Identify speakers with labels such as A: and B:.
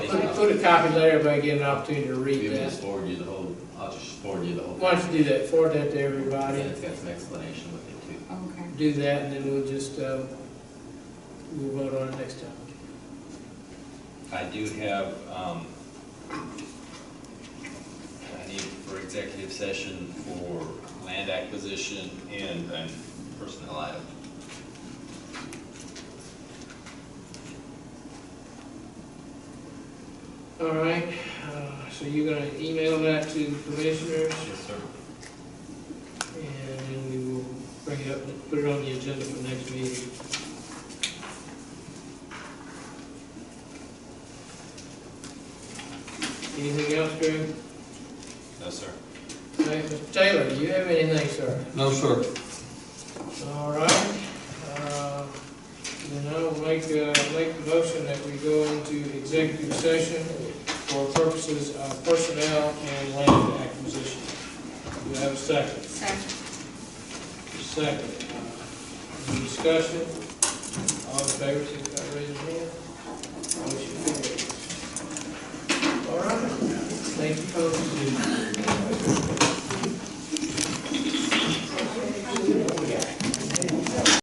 A: put a copy later, if I get an opportunity to
B: Maybe
A: read
B: just
A: that.
B: forward you the whole, I'll just forward you the whole.
A: Why don't you do that, forward that
B: And
A: to everybody,
B: it's got some explanation with it too.
C: Okay.
A: do that, and then we'll just, uh, we'll vote on it next time.
D: I do have, um, I need for executive session for land acquisition and an personnel item.
A: All right, uh, so you're gonna email that to the commissioners,
D: Yes, sir.
A: and then we will bring it up, put it on the agenda for next meeting. Anything else, Greg?
D: No, sir.
A: Okay, Mr. Taylor, do you have anything, sir?
E: No, sir.
A: All right, uh, then I'll make, uh, make the motion that we go into executive session for purposes of personnel and land acquisition. Do we have a second?
C: Second.
A: Second. Uh, Any discussion? All in favor, signify by raising your hand. Motion carries. All right, thank you, folks.